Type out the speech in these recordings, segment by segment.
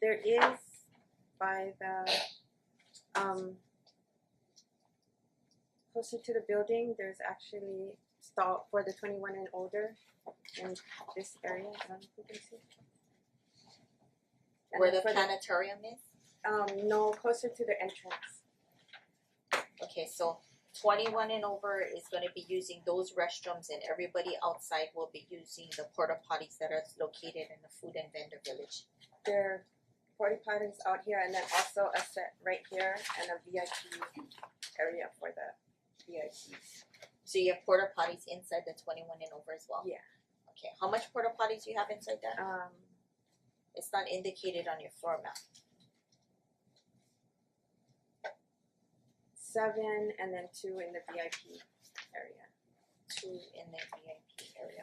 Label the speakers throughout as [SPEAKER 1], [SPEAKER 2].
[SPEAKER 1] there is by the um closer to the building, there's actually stall for the twenty one and older in this area, I don't know if you can see. And
[SPEAKER 2] Where the
[SPEAKER 1] for
[SPEAKER 2] planetarium is?
[SPEAKER 1] um no, closer to the entrance.
[SPEAKER 2] Okay, so twenty-one and over is gonna be using those restrooms and everybody outside will be using the porta potties that are located in the food and vendor village.
[SPEAKER 1] There are forty potties out here and then also a set right here and a VIP area for the VIPs.
[SPEAKER 2] So you have porta potties inside the twenty-one and over as well?
[SPEAKER 1] Yeah.
[SPEAKER 2] Okay, how much porta potties you have inside that?
[SPEAKER 1] Um
[SPEAKER 2] It's not indicated on your floor map.
[SPEAKER 1] seven and then two in the VIP area.
[SPEAKER 2] two in the VIP area.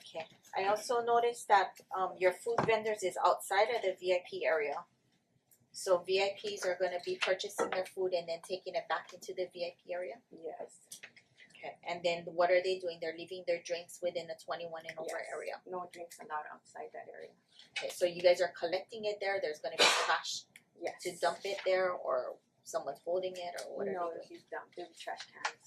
[SPEAKER 2] Okay, I also noticed that um your food vendors is outside of the VIP area. So VIPs are gonna be purchasing their food and then taking it back into the VIP area.
[SPEAKER 1] Yes.
[SPEAKER 2] Okay, and then what are they doing? They're leaving their drinks within the twenty one and over
[SPEAKER 1] Yes.
[SPEAKER 2] area.
[SPEAKER 1] No drinks allowed outside that area.
[SPEAKER 2] Okay, so you guys are collecting it there, there's gonna be trash
[SPEAKER 1] Yes.
[SPEAKER 2] to dump it there or someone's holding it or what are they
[SPEAKER 1] No,
[SPEAKER 2] doing?
[SPEAKER 1] you dump, they trash cans.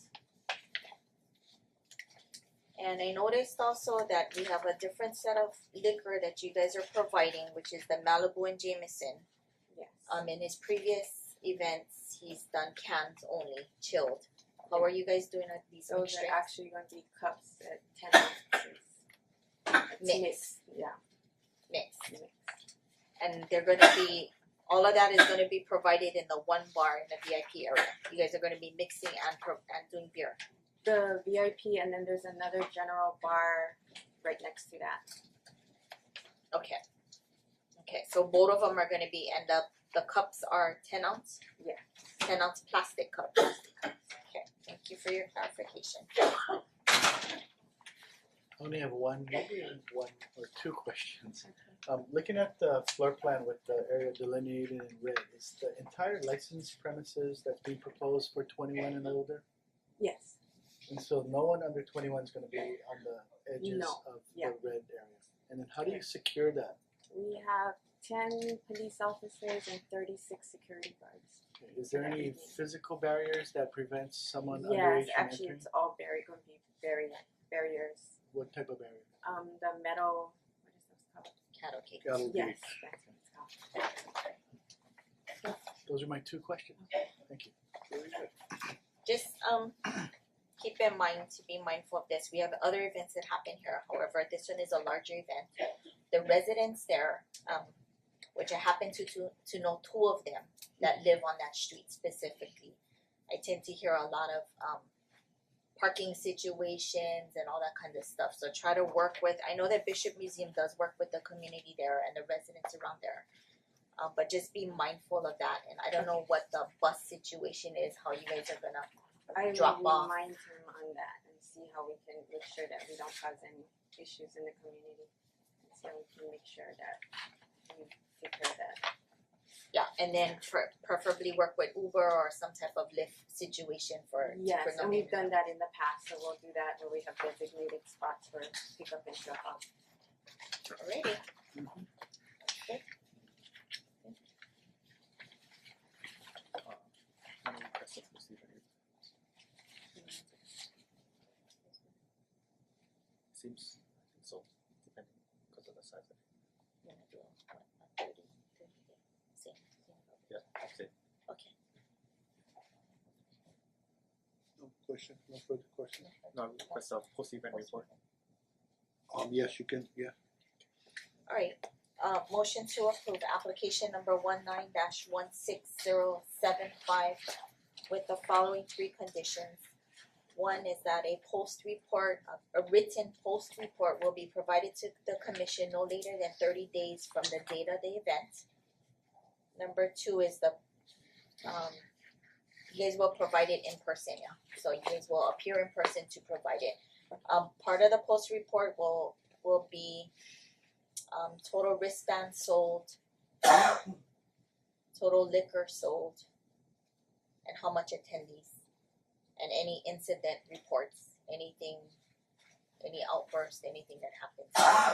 [SPEAKER 2] And I noticed also that we have a different set of liquor that you guys are providing, which is the Malibu and Jameson.
[SPEAKER 1] Yes.
[SPEAKER 2] Um, in his previous events, he's done cans only, chilled. How are you guys doing at these
[SPEAKER 1] Those
[SPEAKER 2] mixed
[SPEAKER 1] are
[SPEAKER 2] drinks?
[SPEAKER 1] actually gonna be cups at ten ounces. It's
[SPEAKER 2] Mix.
[SPEAKER 1] mixed, yeah,
[SPEAKER 2] Mixed.
[SPEAKER 1] mixed.
[SPEAKER 2] And they're gonna be, all of that is gonna be provided in the one bar in the VIP area. You guys are gonna be mixing and pro- and doing beer.
[SPEAKER 1] The VIP and then there's another general bar right next to that.
[SPEAKER 2] Okay. Okay, so both of them are gonna be, and the, the cups are ten ounce?
[SPEAKER 1] Yeah.
[SPEAKER 2] Ten ounce plastic cups. Okay, thank you for your clarification.
[SPEAKER 3] I only have one, maybe one or two questions. Um looking at the floor plan with the area delineated in red, is the entire licensed premises that's being proposed for twenty one and older?
[SPEAKER 1] Yes.
[SPEAKER 3] And so no one under twenty one is gonna be on the edges
[SPEAKER 1] No,
[SPEAKER 3] of the
[SPEAKER 1] yeah.
[SPEAKER 3] red area. And then how do you secure that?
[SPEAKER 1] We have ten police officers and thirty six security guards.
[SPEAKER 3] Is there any physical barriers that prevents someone underage
[SPEAKER 1] Yes,
[SPEAKER 3] from
[SPEAKER 1] actually
[SPEAKER 3] entering?
[SPEAKER 1] it's all barrier, gonna be barrier, barriers.
[SPEAKER 3] What type of barrier?
[SPEAKER 1] Um, the metal, what is this called?
[SPEAKER 2] Cattle cake.
[SPEAKER 3] Cattle
[SPEAKER 1] Yes,
[SPEAKER 3] gate.
[SPEAKER 1] that's what it's called.
[SPEAKER 3] Those are my two questions, thank you.
[SPEAKER 2] Just um keep in mind to be mindful of this. We have other events that happen here, however, this one is a larger event. The residents there, um which I happen to to to know two of them that live on that street specifically. I tend to hear a lot of um parking situations and all that kind of stuff. So try to work with, I know that Bishop Museum does work with the community there and the residents around there. Um but just be mindful of that and I don't know what the bus situation is, how you guys are gonna
[SPEAKER 1] I will
[SPEAKER 2] drop off.
[SPEAKER 1] remind him on that and see how we can make sure that we don't cause any issues in the community. And so we can make sure that we take care of that.
[SPEAKER 2] Yeah, and then for preferably work with Uber or some type of Lyft situation for
[SPEAKER 1] Yes,
[SPEAKER 2] for no
[SPEAKER 1] and we've done
[SPEAKER 2] reason.
[SPEAKER 1] that in the past, so we'll do that where we have designated spots for pickup and drop off.
[SPEAKER 2] Alrighty. Okay.
[SPEAKER 4] Seems so, depending, because of the size of it,
[SPEAKER 2] You're gonna do a- a 30, 30, same, same.
[SPEAKER 4] yeah, that's it.
[SPEAKER 2] Okay.
[SPEAKER 5] No question, no further question.
[SPEAKER 4] No, request a post event report.
[SPEAKER 5] Um, yes, you can, yeah.
[SPEAKER 2] Alright, uh motion to approve application number one nine dash one six zero seven five with the following three conditions. One is that a post report, a- a written post report will be provided to the commission no later than thirty days from the date of the event. Number two is the um you guys will provide it in person, yeah, so you guys will appear in person to provide it. Um part of the post report will will be um total wristband sold, total liquor sold, and how much attendees, and any incident reports, anything, any outburst, anything that happens.